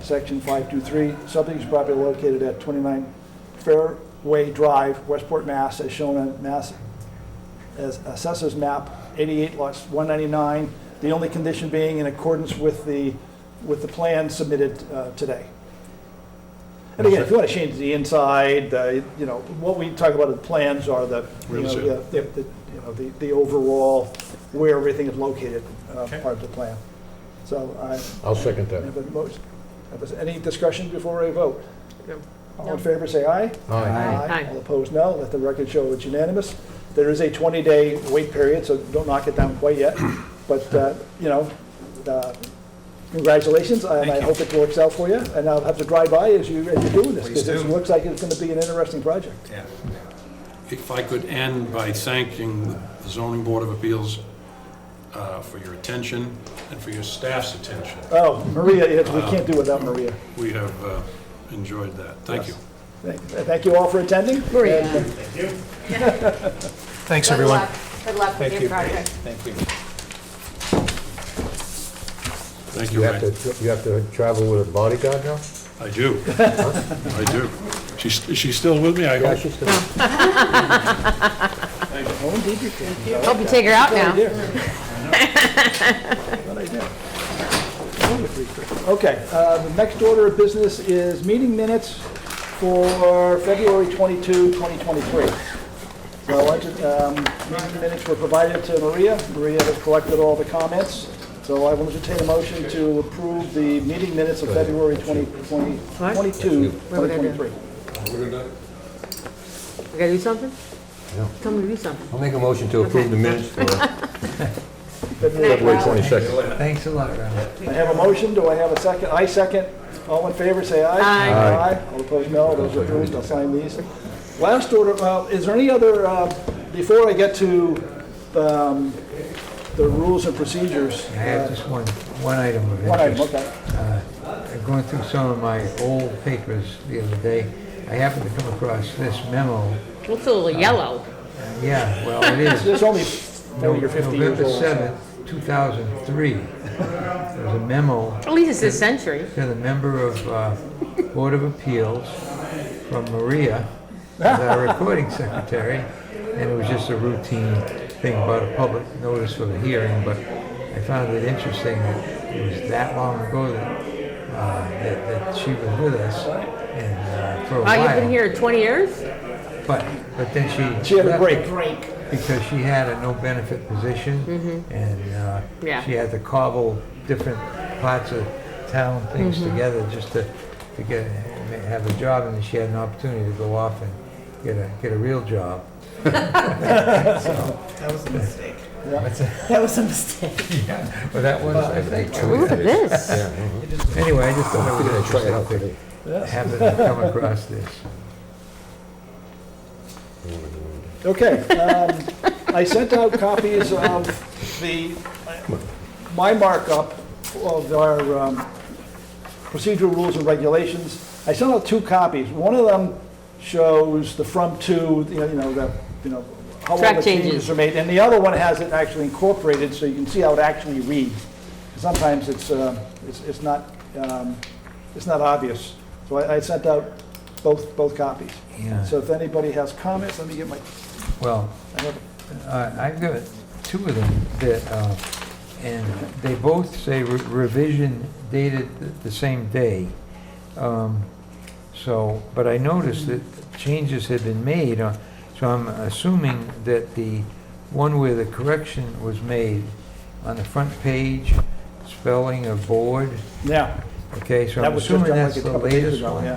Section 523, subdivision property located at 29 Fairway Drive, Westport, Mass., as shown on Mass. as Assessors Map 88, lots 199, the only condition being in accordance with the, with the plan submitted uh, today. And again, if you want to change the inside, the, you know, what we talk about in plans are the, you Real know, estate. yeah, the, the, you know, the, the overall, where everything is located, uh, Okay. part of the plan. So I I'll second have that. a motion. Have us- Any discussion before I vote? No. All in favor, say aye. Aye. Aye. All opposed, no. Let the record show it's unanimous. There is a 20-day wait period, so don't knock it down quite yet. But, uh, you know, uh, congratulations, and I hope it works out for you. And I'll have to drive by as you, as you're doing this, Please because it do. looks like it's going to be an interesting project. Yeah. If I could end by thanking the zoning board of appeals uh, for your attention and for your staff's attention. Oh, Maria, yes, we can't do without Maria. We have uh, enjoyed that. Thank you. Thank- Thank you all for attending. Maria. Thanks, Good everyone. luck. Good luck Thank with you. your project. Thank you. Thank You you, have Ray. to, you have to travel with a bodyguard now? I do. I do. She's, she's still with me, I Yeah, hope? she's still. Oh, indeed you can. Hope you take her out Good now. idea. Good idea. Okay, uh, the next order of business is meeting minutes for February 22, 2023. So I just, um, meeting minutes were provided to Maria. Maria has collected all the comments. So I will entertain a motion to approve the meeting minutes of February 20 20 What? 22, What would I do? 2023. We gotta do something? No. Tell me to do something. I'll make a motion to approve the minutes for February- February 22nd. Thanks a lot, Ralph. I have a motion, do I have a second? I second. All in favor, say aye. Aye. All opposed, no. Those opposed, I'll sign these. Last order, uh, is there any other, uh, before I get to um, the rules and procedures? I have uh, just one, one item of One item, interest. okay. Uh, Going through some of my old papers the other day, I happened to come across this memo. Looks a little yellow. Yeah, well, it is. There's only 40 or 50 years November old. so- 7th, 2003. There was a memo At least it's this century. to the member of uh, Board of Appeals from Maria, as our recording secretary, and it was just a routine thing about a public notice of a hearing, but I found it interesting that it was that long ago that, uh, that that she was with us and uh, for a Wow, Ah, you've been while. here 20 years? But, but then she. She had a left break. Because she had a no-benefit position, and uh, Yeah. she had to cobble different parts of town things together just to, to get, have a job, and then she had an opportunity to go off and get a, get a real job. That was a mistake. Well, that was, I think, Look at this. Yeah, mhm. anyway, I just thought it We're gonna was try it out interesting today. to happen to come across this. Okay. um, I sent out copies of the, my markup of our um, procedural rules and regulations. I sent out two copies. One of them shows the from to, you know, you know, the, you know, how all Track the changes changes. are made. And the other one has it actually incorporated, so you can see how it actually reads. Sometimes it's, uh, it's it's not, um, it's not obvious. So I I sent out both, both copies. Yeah. So if anybody has comments, let me get my, Well, I have Uh, I've got two of them that, uh, and they both say re- revision dated th- the same day. Um, So, but I noticed that changes had been made, uh, so I'm assuming that the one where the correction was made on the front page, spelling of board, Yeah, okay, so that I'm was just assuming done like that's a the couple days latest ago, one? yeah.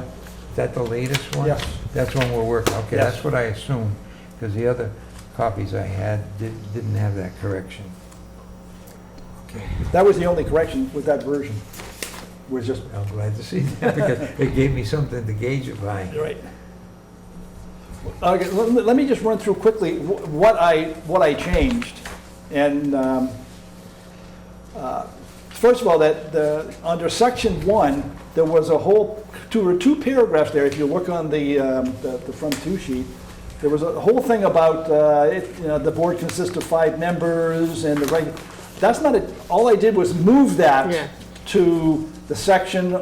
Is that the latest one? Yes. That's one we're working, okay, Yes. that's what I assumed, because the other copies I had did- didn't have that correction. Okay, That was the only correction with that version, was just. I'm glad to see that, because it gave me something to gauge it by. Right. Okay, let, me- let me just run through quickly wh- what I, what I changed. And, um, uh, first of all, that the, under section one, there was a whole, two, or two paragraphs there, if you look on the, um, the, the front two sheet. There was a whole thing about, uh, it, you know, the board consists of five members and the reg, that's not it, all I did was move Yeah. that to the section